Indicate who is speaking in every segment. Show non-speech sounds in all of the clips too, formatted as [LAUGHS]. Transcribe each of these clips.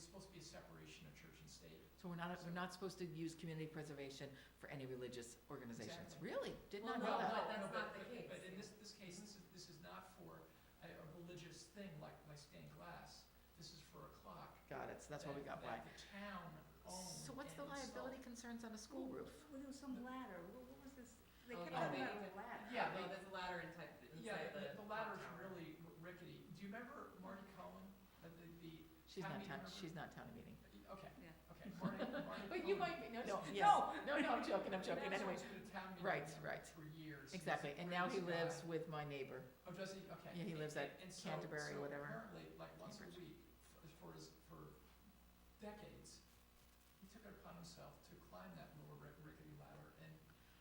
Speaker 1: supposed to be a separation of church and state.
Speaker 2: So we're not, we're not supposed to use community preservation for any religious organizations?
Speaker 1: Exactly.
Speaker 2: Really? Did
Speaker 3: Well,
Speaker 2: not
Speaker 3: no,
Speaker 2: know
Speaker 3: but
Speaker 2: Oh, that.
Speaker 3: that's
Speaker 1: no,
Speaker 3: not the
Speaker 1: but-
Speaker 3: case.
Speaker 1: But in this, this case, this is, this is not for a, a religious thing like, like stained glass. This is for a clock.
Speaker 2: Got it, so that's why we got
Speaker 1: that-
Speaker 2: by.
Speaker 1: That the town owned
Speaker 2: Oh, So what's the
Speaker 1: and installed.
Speaker 2: liability concerns on a school roof?
Speaker 4: Well, there was some ladder, what, what was this, they
Speaker 3: Oh,
Speaker 4: kept
Speaker 3: yeah.
Speaker 4: talking about a ladder.
Speaker 1: Yeah,
Speaker 3: Well,
Speaker 1: they-
Speaker 3: there's a ladder inside,
Speaker 1: Yeah,
Speaker 3: inside the.
Speaker 1: the- the latter's
Speaker 3: tower.
Speaker 1: really r- rickety. Do you remember Marty Cohen, Uh, the, the,
Speaker 2: She's
Speaker 1: Town
Speaker 2: not
Speaker 1: meeting
Speaker 2: town,
Speaker 1: member.
Speaker 2: she's not town meeting.
Speaker 1: okay,
Speaker 4: Yeah.
Speaker 1: okay, Marty,
Speaker 2: [LAUGHS]
Speaker 1: Marty
Speaker 2: But you
Speaker 1: Cohen
Speaker 2: might be, no,
Speaker 1: No.
Speaker 2: no, yes. No, no, I'm joking, I'm
Speaker 1: He
Speaker 2: joking,
Speaker 1: was
Speaker 2: anyway.
Speaker 1: actually the town meeting
Speaker 2: Right,
Speaker 1: member
Speaker 2: right.
Speaker 1: For years. He's a
Speaker 2: Exactly, and now he
Speaker 1: great guy.
Speaker 2: lives with my neighbor.
Speaker 1: Oh, does he? Okay.
Speaker 2: Yeah, he lives at
Speaker 1: And- and so-
Speaker 2: Canterbury,
Speaker 1: so
Speaker 2: whatever.
Speaker 1: Apparently, like once a
Speaker 2: Cambridge.
Speaker 1: week, f- for his, for decades, he took it upon himself to climb that little rick- rickety ladder and,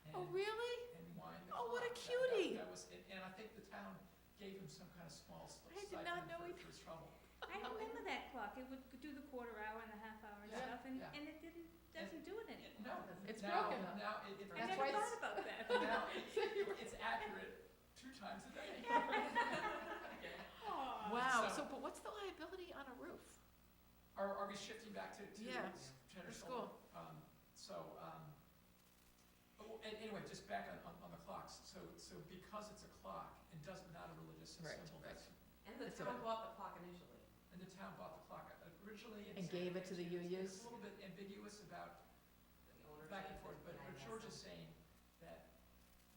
Speaker 1: and,
Speaker 2: Oh, really?
Speaker 1: and wind the
Speaker 2: Oh, what a
Speaker 1: clock. That- that-
Speaker 2: cutie.
Speaker 1: That was, and, and I think the town gave him some kind of small s-
Speaker 2: I did
Speaker 1: stipend
Speaker 2: not know
Speaker 1: for,
Speaker 2: he-
Speaker 1: for his trouble.
Speaker 2: [LAUGHS]
Speaker 4: I remember that clock, it would do the quarter hour and the half hour and
Speaker 1: Yeah,
Speaker 4: stuff, and,
Speaker 1: yeah.
Speaker 4: and it didn't, doesn't do it anymore.
Speaker 1: No,
Speaker 2: It's
Speaker 1: now,
Speaker 2: broken.
Speaker 1: now it, it.
Speaker 4: I
Speaker 2: That's
Speaker 4: never
Speaker 2: why
Speaker 1: [LAUGHS]
Speaker 4: thought about that.
Speaker 1: Now,
Speaker 2: [LAUGHS]
Speaker 1: it- it's accurate two times a day.
Speaker 4: Aw.
Speaker 2: Wow,
Speaker 1: So-
Speaker 2: Uh, so, but what's the liability on a roof?
Speaker 1: [LAUGHS] Are, are we shifting back to, to
Speaker 2: Yeah,
Speaker 1: Cheddar
Speaker 2: to
Speaker 1: Soul? Um, so, um, oh, and anyway, just back on, on, on the clocks, so, so because it's a clock and doesn't, not a religious
Speaker 2: Right,
Speaker 1: symbol, that's,
Speaker 3: And the
Speaker 2: It's a-
Speaker 3: town bought the clock initially.
Speaker 1: and the town bought the clock Uh, originally.
Speaker 2: And gave it to the
Speaker 1: it's- It's
Speaker 2: UUs?
Speaker 1: a little bit ambiguous about
Speaker 3: The owner
Speaker 1: back and
Speaker 3: said,
Speaker 1: forth, but
Speaker 3: "Yeah, I
Speaker 1: but
Speaker 3: guess
Speaker 1: George
Speaker 3: so."
Speaker 1: is saying that,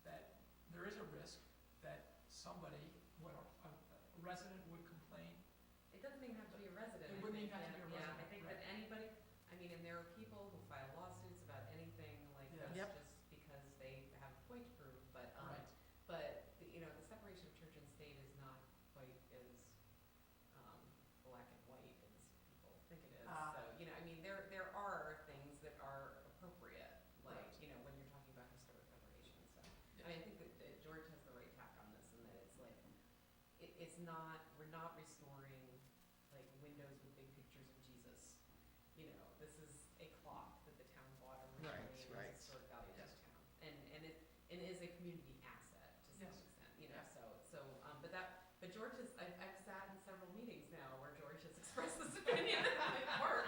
Speaker 1: that there is a risk that somebody, what, a- a resident would complain,
Speaker 3: It doesn't even have to be a resident.
Speaker 1: It
Speaker 3: I
Speaker 1: wouldn't
Speaker 3: think
Speaker 1: even have to
Speaker 3: that-
Speaker 1: be a
Speaker 3: Yeah, I
Speaker 1: resident,
Speaker 3: think
Speaker 1: right.
Speaker 3: that anybody, I mean, and there are people who file lawsuits about anything like
Speaker 1: Yeah.
Speaker 3: this
Speaker 2: Yep.
Speaker 3: just because they have a point to prove, but, um,
Speaker 1: right?
Speaker 3: but, the- you know, the separation of church and state is not quite as, um, black and white as people think it is.
Speaker 1: Ah.
Speaker 3: So, you know, I mean, there, there are things that are appropriate, like,
Speaker 1: Right.
Speaker 3: you know, when you're talking about historic preservation, so. I mean, I think that, that George has the right tack on this, and that it's like, it, it's not, we're not restoring, like, windows with big pictures of Jesus. You know, this is a clock that the town bought originally,
Speaker 2: Right,
Speaker 3: and it's
Speaker 2: right.
Speaker 3: historic value to the
Speaker 1: Yes.
Speaker 3: town. And, and it, and is a community asset to some
Speaker 1: Yes.
Speaker 3: extent, you know,
Speaker 1: Yeah.
Speaker 3: so, so, um, but that, but George has, I've, I've sat in several meetings now where George has [LAUGHS] expressed this opinion, and I'm like, Mark,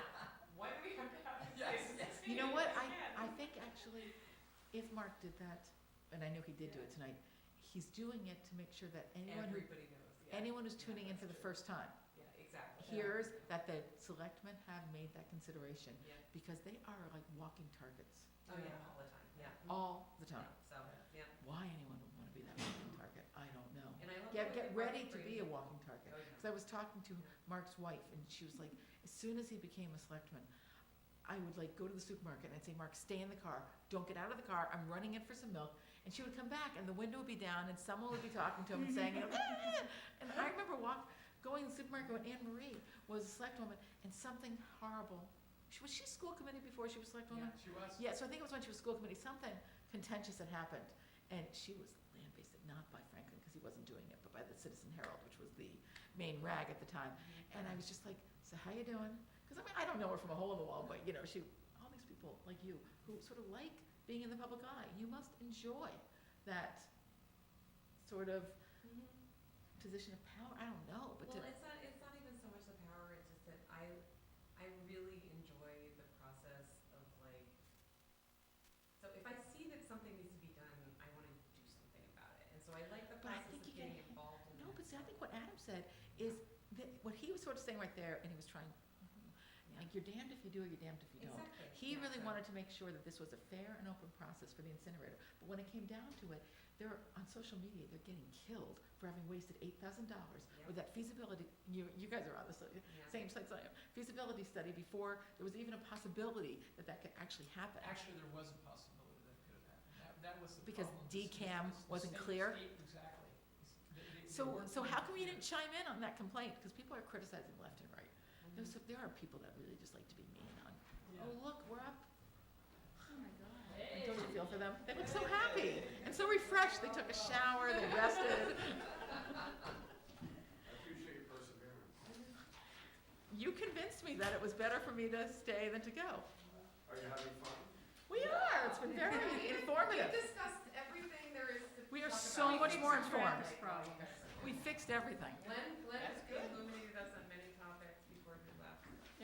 Speaker 3: why do we have to have this?
Speaker 1: Yes,
Speaker 3: thing?
Speaker 1: yes.
Speaker 2: You know what,
Speaker 3: Yeah.
Speaker 2: I, I think actually, if Mark did that, and I know he did do it tonight, he's doing it to make sure that anyone, who-
Speaker 3: Everybody knows, yeah.
Speaker 2: anyone who's
Speaker 3: Yeah,
Speaker 2: tuning in
Speaker 3: that's
Speaker 2: for the
Speaker 3: true.
Speaker 2: first time
Speaker 3: Yeah, exactly.
Speaker 2: hears that the selectmen have made that consideration,
Speaker 3: Yeah.
Speaker 2: because they are like walking targets
Speaker 3: Oh, yeah, all the time, yeah.
Speaker 2: all the time.
Speaker 3: So, Mm-hmm. yeah,
Speaker 2: Why anyone would want to be
Speaker 3: [LAUGHS]
Speaker 2: that walking target, I don't know.
Speaker 3: and I love. the
Speaker 2: Get,
Speaker 3: way
Speaker 2: get
Speaker 3: they
Speaker 2: ready to
Speaker 3: bring-
Speaker 2: be a walking target.
Speaker 3: Oh, yeah.
Speaker 2: Because I was talking to Mark's wife, and she was like, as soon as he became a selectman, I would like go to the supermarket and I'd say, Mark, stay in the car. Don't get out of the car. I'm running in for some milk. And she would come back, and the window would be down, and someone would be talking to him and saying, "Ah!" and I remember walk, going to the supermarket when Anne Marie was a selectwoman, and something horrible. She, was she school committee before she was selectwoman?
Speaker 1: She was,
Speaker 2: Yeah, so I think it was when she was school committee, something contentious had happened, and she was lambasted, not by Franklin, because he wasn't doing it, but by the Citizen Herald, which was the main rag at the time. And I was just like, so how you doing? Because I mean, I don't know her from a hole in the wall, but you know, she, all these people like you, who sort of like being in the public eye, you must enjoy that sort of
Speaker 3: Mhm.
Speaker 2: position of power, I don't know, but
Speaker 3: Well,
Speaker 2: to,
Speaker 3: it's not, it's not even so much the power, it's just that I, I really enjoy the process of like, so if I see that something needs to be done, I want to do something about it. And so I like the
Speaker 2: But I think
Speaker 3: process of
Speaker 2: you get-
Speaker 3: getting involved in that.
Speaker 2: no, but see, I think what Adam said is, that what he was sort of saying right there, and he was trying, like, you're damned if you do or you're damned if you don't.
Speaker 3: Exactly.
Speaker 2: He
Speaker 3: Yeah,
Speaker 2: really
Speaker 3: so-
Speaker 2: wanted to make sure that this was a fair and open process for the incinerator. But when it came down to it, they're, on social media, they're getting killed for having wasted eight thousand dollars
Speaker 3: Yeah.
Speaker 2: with that feasibility, you, you guys are on this, uh,
Speaker 3: Yeah.
Speaker 2: same sites I am, feasibility study before there was even a possibility that that could actually happen.
Speaker 1: actually, there was a possibility that could have happened, that, that was the
Speaker 2: Because
Speaker 1: problem. This- this-
Speaker 2: DCAM
Speaker 1: this- the
Speaker 2: wasn't
Speaker 1: state-
Speaker 2: clear?
Speaker 1: state- Exactly. It's- they- they- they
Speaker 2: So,
Speaker 1: weren't
Speaker 2: so how come you
Speaker 1: clear.
Speaker 2: didn't chime in on that complaint? Because people are criticizing left and right.
Speaker 3: Mhm.
Speaker 2: There's, there are people that really just like to be mean on,
Speaker 1: Yeah.
Speaker 2: oh, look, we're up.
Speaker 4: Oh, my God.
Speaker 2: And Don't you feel for them? They look so happy and so refreshed. They took a shower, they
Speaker 5: I
Speaker 2: rested.
Speaker 5: appreciate your perseverance.
Speaker 2: You convinced me that it was better for me to stay than to go.
Speaker 5: Are you having fun?
Speaker 2: We are. It's been [LAUGHS] very
Speaker 3: [LAUGHS] We
Speaker 2: informative.
Speaker 3: discussed everything there is to
Speaker 2: We are
Speaker 3: talk
Speaker 2: so
Speaker 3: about.
Speaker 2: much
Speaker 3: We
Speaker 2: more
Speaker 3: fixed the
Speaker 2: informed.
Speaker 3: traffic problem.
Speaker 2: We fixed everything.
Speaker 3: Glenn, Glenn
Speaker 1: That's
Speaker 3: has
Speaker 1: good.
Speaker 3: illuminated